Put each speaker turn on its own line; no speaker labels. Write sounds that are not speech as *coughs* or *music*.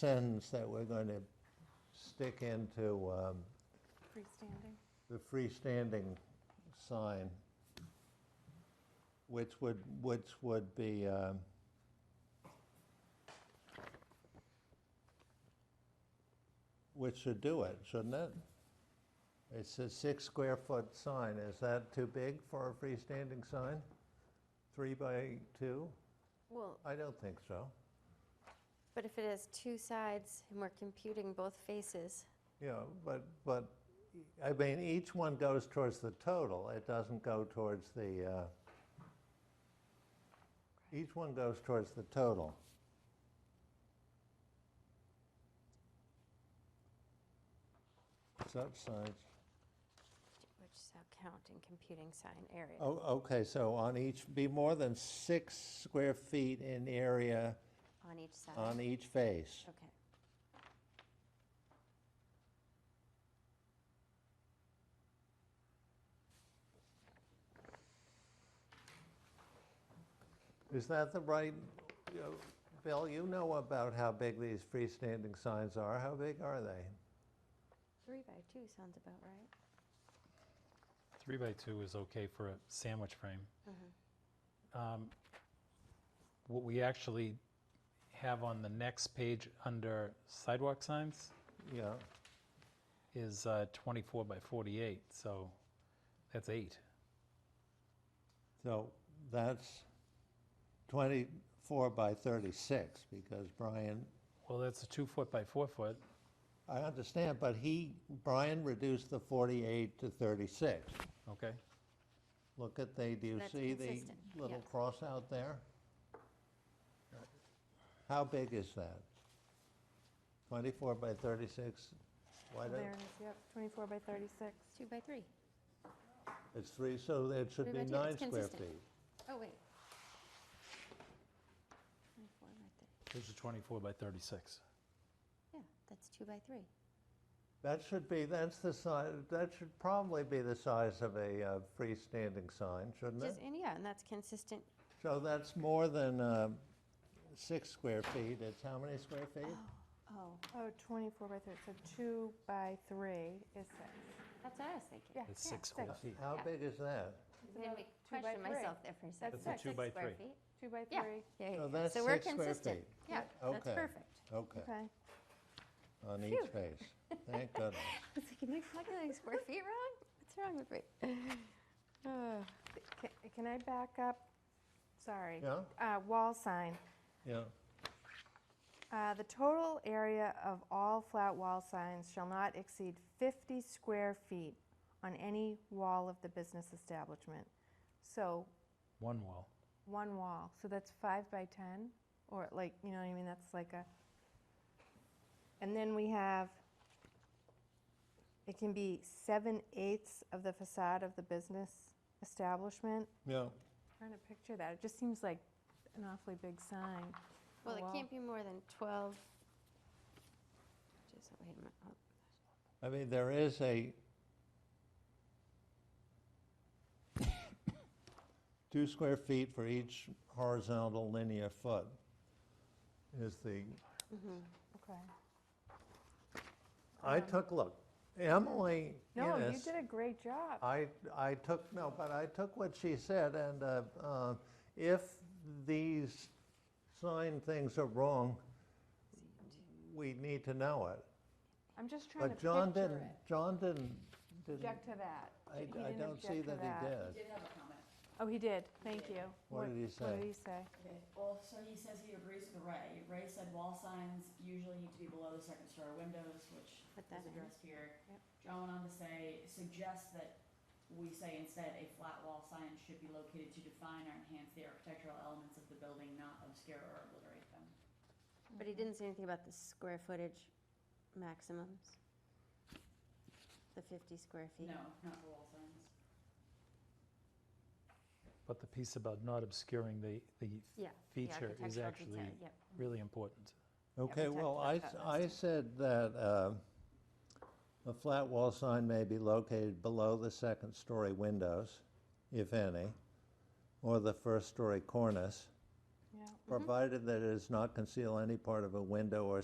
sentence that we're going to stick into um,
freestanding.
the freestanding sign, which would, which would be, um, which should do it, shouldn't it? It's a six square foot sign. Is that too big for a freestanding sign? Three by two?
Well,
I don't think so.
but if it has two sides and we're computing both faces,
Yeah, but, but, I mean, each one goes towards the total, it doesn't go towards the, uh, each one goes towards the total. Such signs,
which is how count in computing sign area.
oh, okay, so on each, be more than six square feet in area
On each side.
on e- each face.
Okay.
Is that the right, you know, Bill, you know about how big these freestanding signs are, how big are they?
Three by two sounds about right.
Three by two is okay for a sandwich frame.
Mm-hmm.
Um, What we actually have on the next page under sidewalk signs
Yeah.
is uh, 24 by 48, so that's eight.
So that's 24 by 36, because Brian,
Well, that's a two foot by four foot.
I understand, but he, Brian reduced the 48 to 36.
Okay,
Look at the, do you
That's
see the
consistent,
little
yes.
cross out there? How big is that? 24 by 36? Why don't,
There it is, yep, 24 by 36.
Two by three.
it's three, so it should
Three
be
by two,
nine
it's
square
consistent.
feet.
Oh, wait. 24 by three.
this is 24 by 36.
Yeah, that's two by three.
That should be, that's the size, that should probably be the size of a uh, freestanding sign, shouldn't it?
Just, and yeah, and that's consistent.
So that's more than uh, six square feet, it's how many square feet?
Oh,
Oh, 24 by 30, so 2 by 3 is 6.
that's what I was thinking.
Yeah,
It's
yeah,
six square feet.
How big is that?
It's
Made
about
me
two by
question
three.
myself there for a second.
That's a
Six
two by
square
three.
feet.
2 by
Yeah,
3.
yeah,
So
yeah, yeah.
that's
So we're
six square
consistent.
feet.
Yeah, that's
Okay.
perfect.
Okay,
Okay.
on each face. *laughs* Thank goodness.
It's like, am I calculating square feet wrong? What's wrong with me? *sighs* Uh,
Ca- Can I back up? Sorry.
Yeah.
Uh, Wall sign.
Yeah,
Uh, The total area of all flat wall signs shall not exceed 50 square feet on any wall of the business establishment. So
One wall.
one wall, so that's five by 10, or like, you know what I mean, that's like a, and then we have, it can be seven eighths of the facade of the business establishment.
yeah.
Trying to picture that, it just seems like an awfully big sign.
Well, it
Wow.
can't be more than 12. Just, wait a minute. oh,
I mean, there is a *coughs* two square feet for each horizontal linear foot is the
Okay.
I took, look, Emily
No, you
Innes-
did a great job.
I, I took, no, but I took what she said, and uh, uh, if these sign things are wrong, we need to know it.
I'm just trying to
But John
picture
didn't,
it.
John didn't, didn't,
Object to that.
I,
He
I
didn't
don't see
object to
that he did.
Oh, he did, thank you.
What did he say?
What did he say?
Okay, well, so he says he agrees with Ray. Ray said wall signs usually need to be below the second story windows, which
Put that
is
in.
addressed here.
Yep.
John went on to say, suggest that we say instead a flat wall sign should be located to define or enhance the architectural elements of the building, not obscure or obliterate them.
But he didn't say anything about the square footage maximums. The 50 square feet.
No, not for wall signs.
But the piece about not obscuring the, the
Yeah. the
feature is
architectural
actually
detail, Yep.
really important.
Okay,
we talked
well,
about
I,
that last
I
time.
said that uh, a flat wall sign may be located below the second story windows, if any, or the first story cornice.
Yeah.
provided that it does not conceal any part of a window or